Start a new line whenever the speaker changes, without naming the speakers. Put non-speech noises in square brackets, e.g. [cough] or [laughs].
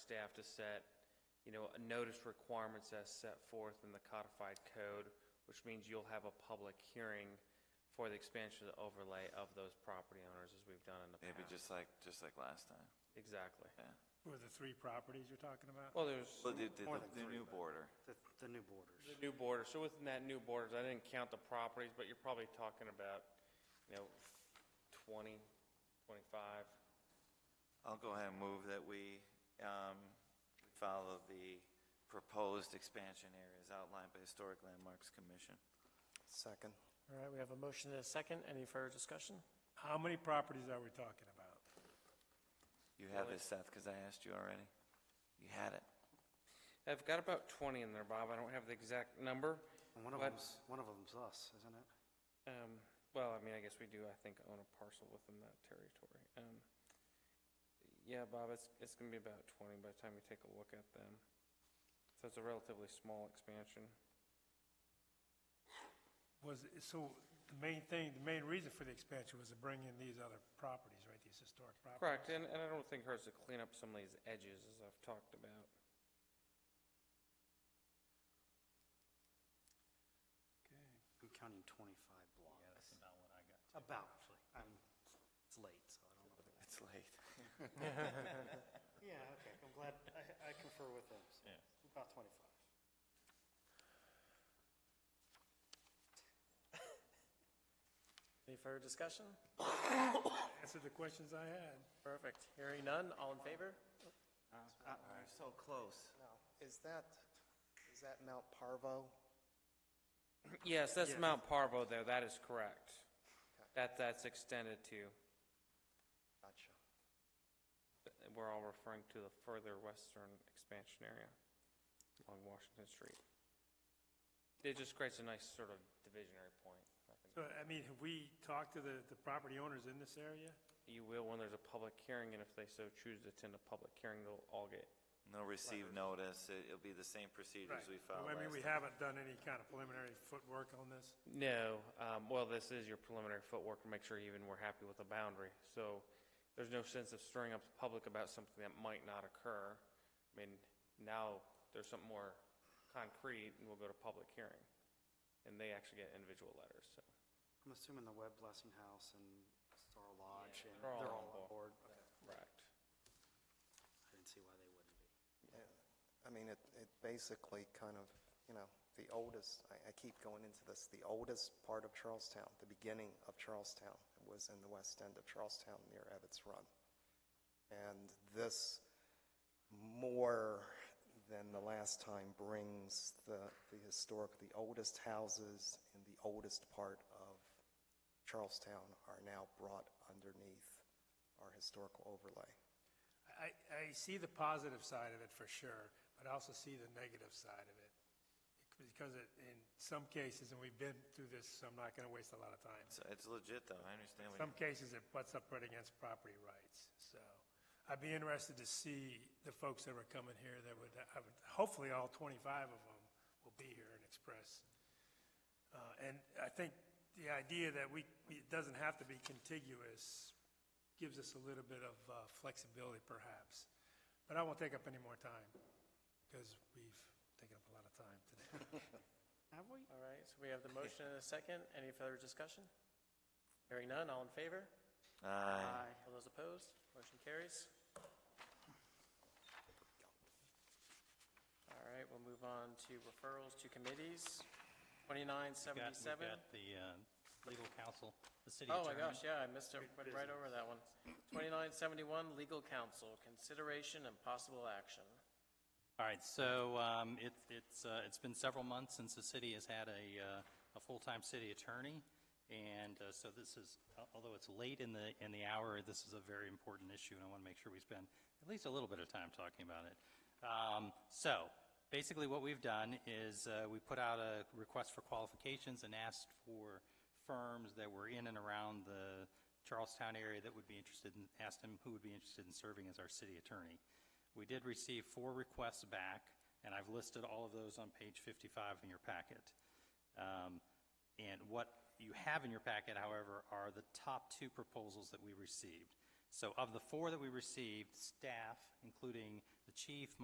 staff to set, you know, notice requirements as set forth in the codified code, which means you'll have a public hearing for the expansion of the overlay of those property owners, as we've done in the past.
Maybe just like, just like last time,
Exactly.
yeah.
Were the three properties you're talking about?
Well, there's
Well, the, the-
More than
the
three,
new
but-
border,
The, the new borders.
the new border, so within that new borders, I didn't count the properties, but you're probably talking about, you know, 20, 25.
I'll go ahead and move that we um, follow the proposed expansion areas outlined by Historic Landmarks Commission.
Second.
All right, we have a motion and a second. Any further discussion?
How many properties are we talking about?
You have this, Seth, because I asked you already. You had it.
I've got about 20 in there, Bob, I don't have the exact number.
One of
but,
them's, one of them's us, isn't it?
um, Well, I mean, I guess we do, I think, own a parcel within that territory. Um, Yeah, Bob, it's, it's going to be about 20 by the time you take a look at them. So it's a relatively small expansion.
Was, so the main thing, the main reason for the expansion was to bring in these other properties, right, these historic properties?
Correct, and, and I don't think it hurts to clean up some of these edges, as I've talked about.
I'm counting 25 blocks. Yeah, that's about what I got. About, I mean, it's late, so I don't know. if I-
It's
[laughs]
late.
[laughs] Yeah, okay, I'm glad, I, I confer with him, so, about 25.
Any further discussion?
Answer the questions I had.
Perfect. Hearing none. All in favor?
Uh,
We're so close.
Now, is that, is that Mount Parvo?
Yes, that's Mount Parvo there, that is correct. That, that's extended to,
Gotcha.
we're all referring to the further western expansion area along Washington Street. It just creates a nice sort of divisionary point. I think.
So, I mean, have we talked to the, the property owners in this area?
You will when there's a public hearing, and if they so choose to attend a public hearing, they'll all get,
No receive notice. It- It'll be the same procedures we followed
I mean, we
last time.
haven't done any kind of preliminary footwork on this.
no, um, well, this is your preliminary footwork to make sure even we're happy with the boundary. So there's no sense of stirring up the public about something that might not occur. I mean, now there's something more concrete, and we'll go to public hearing. And they actually get individual letters, so.
I'm assuming the Webb Blessing House and Star Lodge, and
they're all
they're
on
all on
board.
board. Okay.
Correct.
I didn't see why they wouldn't be.
I mean, it, it basically kind of, you know, the oldest, I, I keep going into this, the oldest part of Charlestown, the beginning of Charlestown, was in the west end of Charlestown near Ebbets Run. And this, more than the last time, brings the, the historic, the oldest houses in the oldest part of Charlestown are now brought underneath our historical overlay.
I, I see the positive side of it for sure, but I also see the negative side of it. Because it, in some cases, and we've been through this, so I'm not going to waste a lot of time.
So It's legit, though. I understand. what
Some
you-
cases, it butts up right against property rights, so I'd be interested to see the folks that were coming here that would, I would- hopefully all 25 of them will be here and express. Uh, And I think the idea that we, it doesn't have to be contiguous gives us a little bit of uh, flexibility perhaps. But I won't take up any more time, because we've taken up a lot of time today.
Have we?
All right, so we have the motion and a second. Any further discussion? Hearing none. All in favor?
Uh, Aye.
Uh,
All those opposed? Motion carries. All right, we'll move on to referrals to committees.
We've got- we've
2977.
got the uh, legal counsel, the city
Oh
attorney.
my gosh, yeah, I missed it, went right over that one. 2971, legal counsel, consideration and possible action.
All right, so um, it- it's, uh, it's been several months since the city has had a, uh, a full-time city attorney, and uh, so this is, although it's late in the, in the hour, this is a very important issue, and I want to make sure we spend at least a little bit of time talking about it. Um, So, basically what we've done is uh, we put out a request for qualifications and asked for firms that were in and around the Charlestown area that would be interested in, asked them who would be interested in serving as our city attorney. We did receive four requests back, and I've listed all of those on page 55 in your packet. Um, And what you have in your packet, however, are the top two proposals that we received. So of the four that we received, staff, including the the chief,